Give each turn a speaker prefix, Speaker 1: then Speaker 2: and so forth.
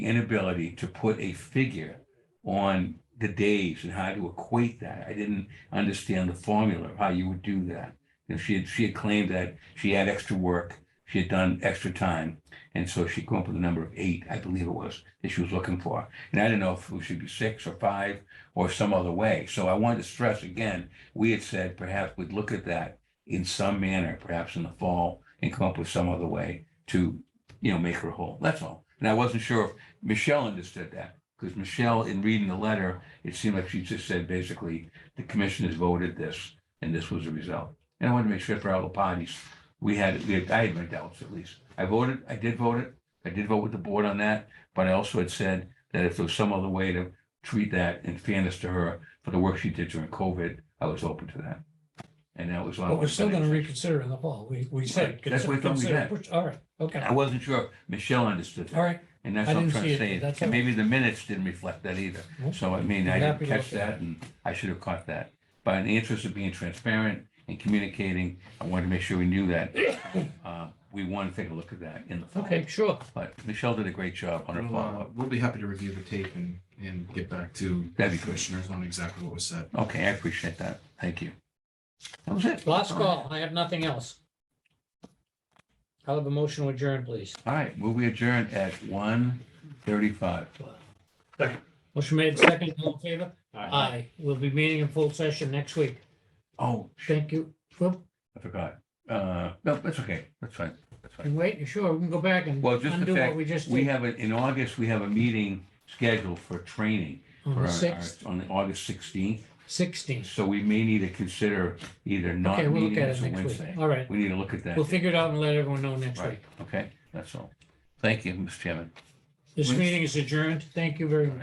Speaker 1: inability to put a figure on the days and how to equate that. I didn't understand the formula of how you would do that. And she had, she had claimed that she had extra work, she had done extra time, and so she came up with a number of eight, I believe it was, that she was looking for. And I didn't know if it should be six or five or some other way. So I wanted to stress again, we had said perhaps we'd look at that in some manner, perhaps in the fall, and come up with some other way to, you know, make her whole. That's all. And I wasn't sure if Michelle understood that, because Michelle, in reading the letter, it seemed like she just said basically, the commission has voted this, and this was the result. And I wanted to make sure for all the parties, we had, we had, I had my doubts at least. I voted, I did vote it, I did vote with the board on that, but I also had said that if there was some other way to treat that in fairness to her for the work she did during COVID, I was open to that. And that was. on-
Speaker 2: But we're still gonna reconsider in the fall. We, we said.
Speaker 1: Right, that's what I thought we
Speaker 2: consider-
Speaker 1: had.
Speaker 2: push- All right, okay,
Speaker 1: I wasn't sure if Michelle understood that.
Speaker 2: all right.
Speaker 1: And that's
Speaker 2: I
Speaker 1: what I'm
Speaker 2: didn't
Speaker 1: trying
Speaker 2: see
Speaker 1: to
Speaker 2: it,
Speaker 1: say.
Speaker 2: that's
Speaker 1: And
Speaker 2: all.
Speaker 1: maybe the minutes didn't reflect that either.
Speaker 2: Nope.
Speaker 1: So I mean, I
Speaker 2: I'm
Speaker 1: didn't
Speaker 2: happy to
Speaker 1: catch
Speaker 2: look at
Speaker 1: that and I should have caught that. But in the interest of being transparent and communicating, I wanted to make sure we knew that. uh, We want to take a look at that in the fall.
Speaker 2: Okay, sure.
Speaker 1: But Michelle did a great job on her
Speaker 3: We'll, uh,
Speaker 1: follow-up.
Speaker 3: we'll be happy to review the tape and, and get back to
Speaker 1: That'd be great.
Speaker 3: commissioners on exactly what was said.
Speaker 2: uh,
Speaker 1: Okay, I appreciate that. Thank you. That was it.
Speaker 2: Last call. I have nothing else. I'll have a motion to adjourn, please.
Speaker 1: All right, will we adjourn at one thirty-five?
Speaker 2: Motion made second, all in favor? Aye. We'll be meeting in full session next week.
Speaker 1: Oh,
Speaker 2: Thank you. Well,
Speaker 1: I forgot. Uh, no, that's okay. That's fine. That's fine.
Speaker 2: you wait, you sure? We can go back and
Speaker 1: Well, just the
Speaker 2: undo what
Speaker 1: fact
Speaker 2: we just
Speaker 1: We
Speaker 2: did
Speaker 1: have, a- in August, we have a meeting scheduled for training
Speaker 2: on
Speaker 1: for
Speaker 2: the
Speaker 1: our- our,
Speaker 2: sixth,
Speaker 1: on August sixteenth.
Speaker 2: sixteenth.
Speaker 1: So we may need to consider either not
Speaker 2: Okay, we'll
Speaker 1: meeting
Speaker 2: look at it
Speaker 1: until
Speaker 2: next
Speaker 1: Wednesday.
Speaker 2: week. All right.
Speaker 1: We need to look at that.
Speaker 2: We'll figure it out and let everyone know next
Speaker 1: Right,
Speaker 2: week.
Speaker 1: okay, that's all. Thank you, Mr. Chairman.
Speaker 2: This
Speaker 3: Wednesday.
Speaker 2: meeting is adjourned. Thank you very much.